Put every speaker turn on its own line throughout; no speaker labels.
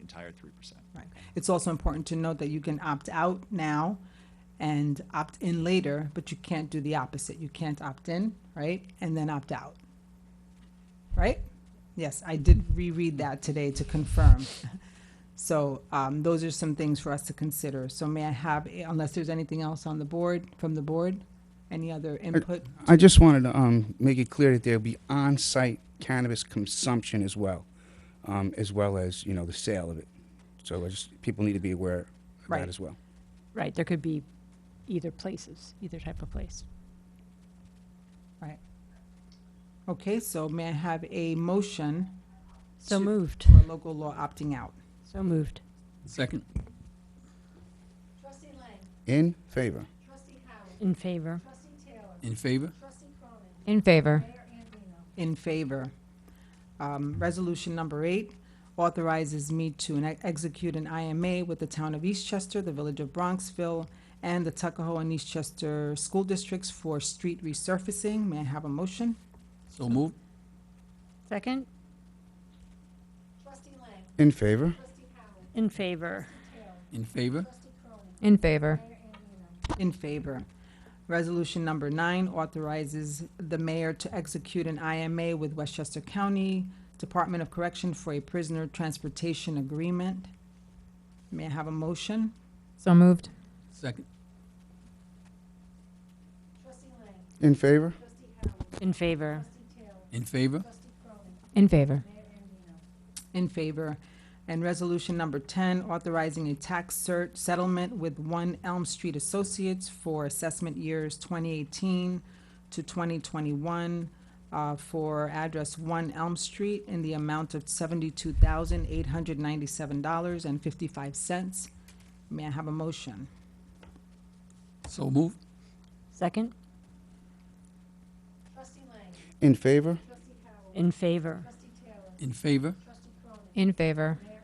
entire three percent.
Right. It's also important to note that you can opt out now and opt in later, but you can't do the opposite. You can't opt in, right, and then opt out. Right? Yes, I did reread that today to confirm. So um, those are some things for us to consider. So may I have, unless there's anything else on the board, from the board, any other input?
I just wanted to um, make it clear that there'll be on-site cannabis consumption as well, um, as well as, you know, the sale of it. So I just, people need to be aware of
Right.
that as well.
Right, there could be either places, either type of place.
Right. Okay, so may I have a motion
So
To-
moved,
for local law opting out?
so moved.
Second.
Trustee Lang,
In favor?
Trustee Howard,
In favor.
Trustee Taylor,
In favor?
Trustee Cronin,
In favor.
Mayor Andino,
In favor. Um, Resolution number eight authorizes me to enact- execute an IMA with the town of Eastchester, the village of Bronxville, and the Tuckahoe and Eastchester School Districts for street resurfacing. May I have a motion?
So moved.
Second?
Trustee Lang,
In
Trustee
favor?
Howard,
In favor.
In favor?
Trustee Cronin,
In favor.
Mayor Andino,
In favor. Resolution number nine authorizes the mayor to execute an IMA with Westchester County Department of Correction for a prisoner transportation agreement. May I have a motion?
So moved.
Second.
Trustee Lang,
In favor?
Trustee Howard,
In favor.
Trustee Taylor,
In favor?
Trustee Cronin,
In favor.
Mayor Andino,
In favor. And resolution number 10, authorizing a tax cert settlement with One Elm Street Associates for assessment years 2018 to 2021 uh, for address One Elm Street in the amount of $72,897.55. May I have a motion?
So moved.
Second?
Trustee Lang,
In favor?
Trustee Howard,
In favor.
Trustee Taylor,
In favor?
Trustee Cronin,
In favor.
Mayor Andino,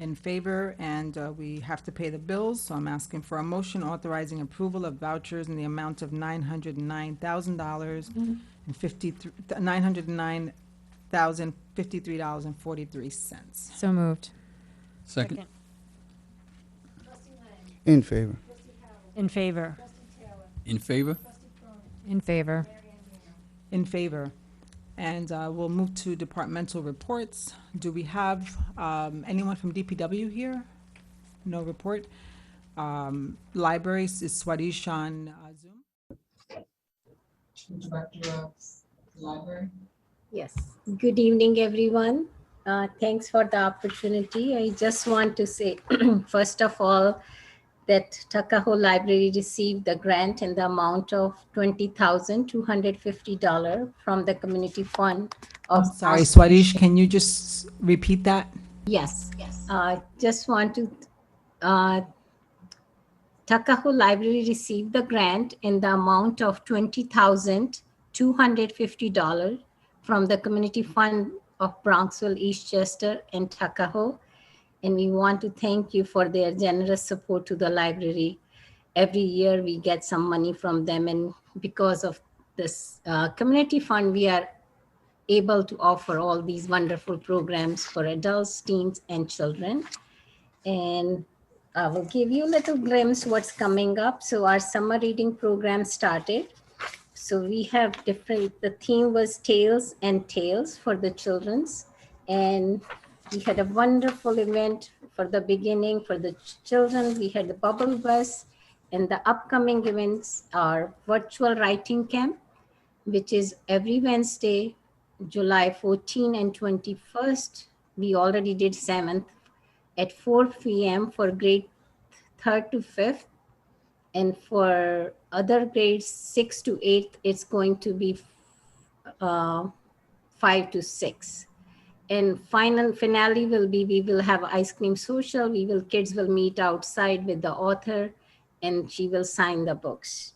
In favor, and uh, we have to pay the bills, so I'm asking for a motion authorizing approval of vouchers in the amount of nine hundred and nine thousand dollars and fifty-three, nine hundred and nine thousand, fifty-three dollars and forty-three cents.
So moved.
Second.
Trustee Lang,
In favor?
Trustee Howard,
In favor.
Trustee Taylor,
In favor?
Trustee Cronin,
In favor.
Mayor Andino,
In favor. And uh, we'll move to departmental reports. Do we have um, anyone from DPW here? No report. Um, Libraries is Swadesh on uh, Zoom.
Director of the Library.
Yes, good evening, everyone. Uh, Thanks for the opportunity. I just want to say, first of all, that Tuckahoe Library received the grant in the amount of $20,250 from the Community Fund.
I'm
of
sorry, Swadesh, can you just repeat that?
Yes, yes. Uh, Just want to, uh, Tuckahoe Library received the grant in the amount of $20,250 from the Community Fund of Bronxville, Eastchester, and Tuckahoe. And we want to thank you for their generous support to the library. Every year, we get some money from them, and because of this uh, Community Fund, we are able to offer all these wonderful programs for adults, teens, and children. And I will give you a little glimpse what's coming up. So our summer reading program started. So we have different, the theme was tales and tales for the children's. And we had a wonderful event for the beginning, for the ch- children. We had the bubble bus. And the upcoming events are virtual writing camp, which is every Wednesday July 14 and 21st. We already did 7th at 4 p.m. for grade 3rd to 5th. And for other grades 6 to 8th, it's going to be uh, 5 to 6. And final finale will be we will have ice cream social. We will kids will meet outside with the author and she will sign the books.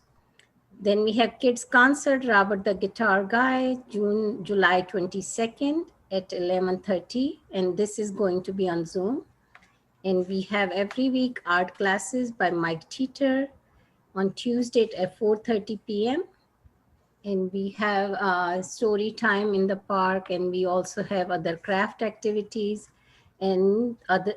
Then we have kids concert, Robert the Guitar Guy, June, July 22nd at 11:30, and this is going to be on Zoom. And we have every week art classes by Mike Teeter on Tuesday at 4:30 p.m. And we have uh, story time in the park, and we also have other craft activities. and other,